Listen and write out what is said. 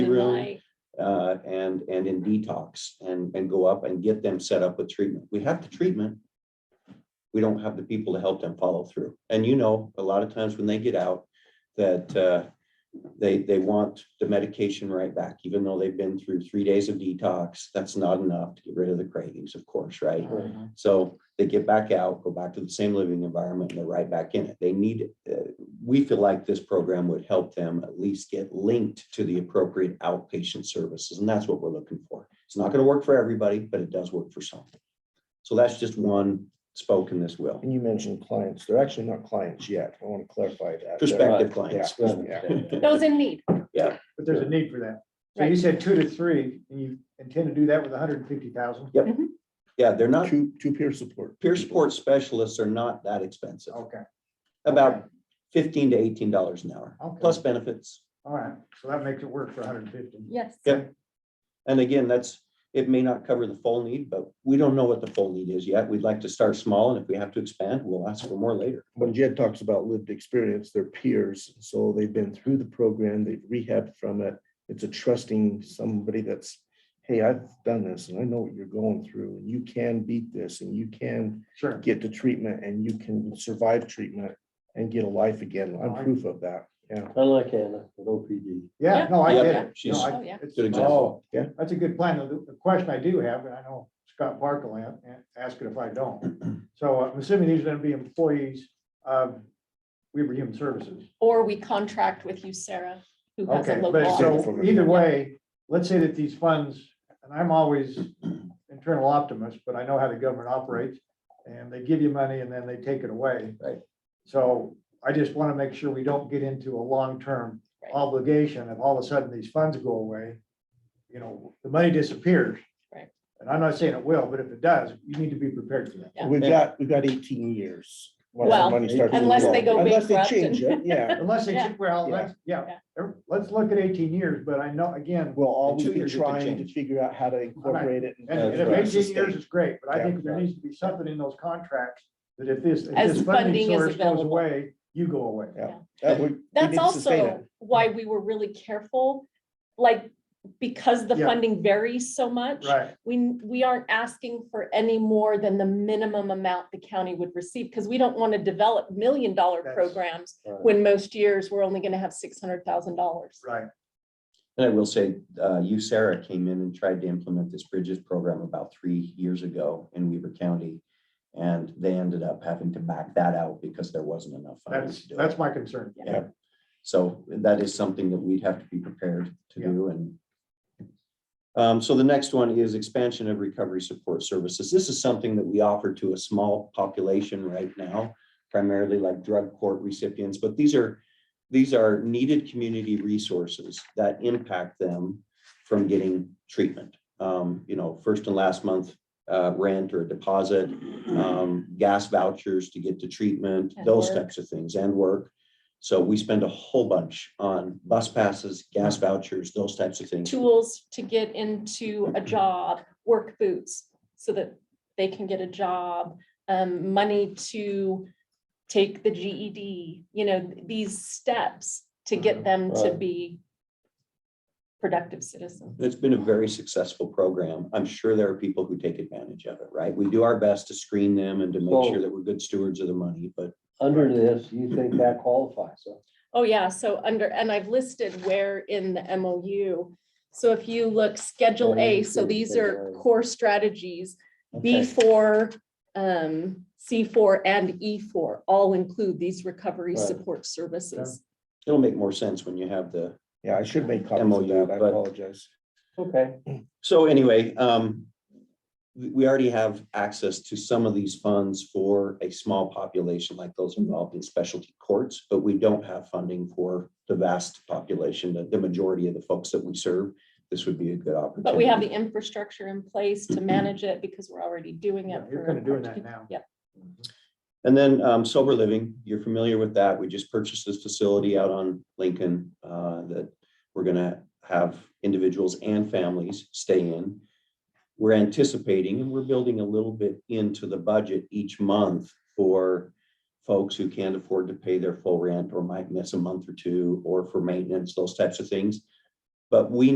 room. Really? Uh, and, and in detox and, and go up and get them set up with treatment. We have the treatment. We don't have the people to help them follow through. And you know, a lot of times when they get out, that, uh, they, they want the medication right back, even though they've been through three days of detox. That's not enough to get rid of the cravings, of course, right? So they get back out, go back to the same living environment, and they're right back in it. They need, uh, we feel like this program would help them at least get linked to the appropriate outpatient services, and that's what we're looking for. It's not gonna work for everybody, but it does work for some. So that's just one spoke in this wheel, And you mentioned clients. They're actually not clients yet. I want to clarify that. They're- prospective clients. Yeah. yeah. Those in need, But there's a need for that. So you Right. said two to three, and you intend to do that with hundred and fifty thousand? Yeah, they're not, Two, two peer support. peer people. support specialists are not that expensive, Okay, about fifteen to eighteen dollars an hour, Okay. plus benefits. all right, so that makes it work for hundred and fifty. yes. Yeah. And again, that's, it may not cover the full need, but we don't know what the full need is yet. We'd like to start small and if we have to expand, we'll ask for more later. When Jed talks about lived experience, they're peers. So they've been through the program, they've rehabbed from it. It's a trusting somebody that's, hey, I've done this and I know what you're going through and you can beat this and you can Sure. get to treatment and you can survive treatment and get a life again. I'm proof of that. Yeah. Unlike Hannah with OPD. Yeah, Yeah. no, I Yeah, get it. she's- No, I- Oh, yeah. it's- Good example. oh, That's a good plan. The, the question I do have, and I know Scott Parker will a- a- ask it if I don't. So I'm assuming these are gonna be employees of Weaver Human Services. Or we contract with you, Sarah, who has a Okay, local but office. so either way, let's say that these funds, and I'm always internal optimist, but I know how the government operates. And they give you money and then they take it away. Right. So I just want to make sure we don't get into a long-term Right. obligation if all of a sudden these funds go away. You know, the money disappears. Right. And I'm not saying it will, but if it does, you need to be prepared for that. Yeah. We've Yeah. got, we've got eighteen years. once the Well, money starts to unless roll. they go Unless they bankrupt change it, yeah. Unless they, Yeah. well, Yeah. let's, yeah, er, Yeah. let's look at eighteen years, but I know, again, We'll always two be years it could trying to change. figure out how to incorporate it. And That's and if right. eighteen years is great, but I Yeah. think there needs to be something in those contracts that if this, if As this funding funding is source goes available. away, you go away. That would- we need That's to sustain also why we were really careful, like, because the Yeah. funding varies so much. Right, We, we aren't asking for any more than the minimum amount the county would receive, because we don't want to develop million dollar That's- programs Right. when most years we're only going to have six hundred thousand dollars. right. And I will say, uh, you, Sarah, came in and tried to implement this Bridges program about three years ago in Weaver County. And they ended up having to back that out because there wasn't enough. funding That's, to do it. that's my concern. So that is something that we'd have to be prepared to Yeah. do and. Um, so the next one is expansion of recovery support services. This is something that we offer to a small population right now, primarily like drug court recipients, but these are. These are needed community resources that impact them from getting treatment. Um, you know, first and last month, uh, rent or deposit, um, gas vouchers to get to treatment, And those work. types of things and work. So we spend a whole bunch on bus passes, gas vouchers, those types of things. tools to get into a job, work boots, so that they can get a job, um, money to take the GED, you know, these steps to get them to Right. be productive citizens. It's been a very successful program. I'm sure there are people who take advantage of it, right? We do our best to screen them and to make sure Well- that we're good stewards of the money, but Under this, you think that qualifies, so. Oh, yeah, so under, and I've listed where in the MOU. So if you look, Schedule A, so these are core strategies. B four, um, C four and E four all include these recovery Right. support services. it'll make more sense when you have the Yeah, I should make copies MOU, of that. I but- apologize. Okay. So anyway, um, we, we already have access to some of these funds for a small population like those involved in specialty courts, but we don't have funding for the vast population, the, the majority of the folks that we serve. This would be a good opportunity. But we have the infrastructure in place to manage it because we're already doing it. Yeah, You're for kind of doing large that people. now. Yep. And then um, sober living, you're familiar with that. We just purchased this facility out on Lincoln uh, that we're gonna have individuals and families stay in. We're anticipating and we're building a little bit into the budget each month for folks who can't afford to pay their full rent or might miss a month or two or for maintenance, those types of things. But we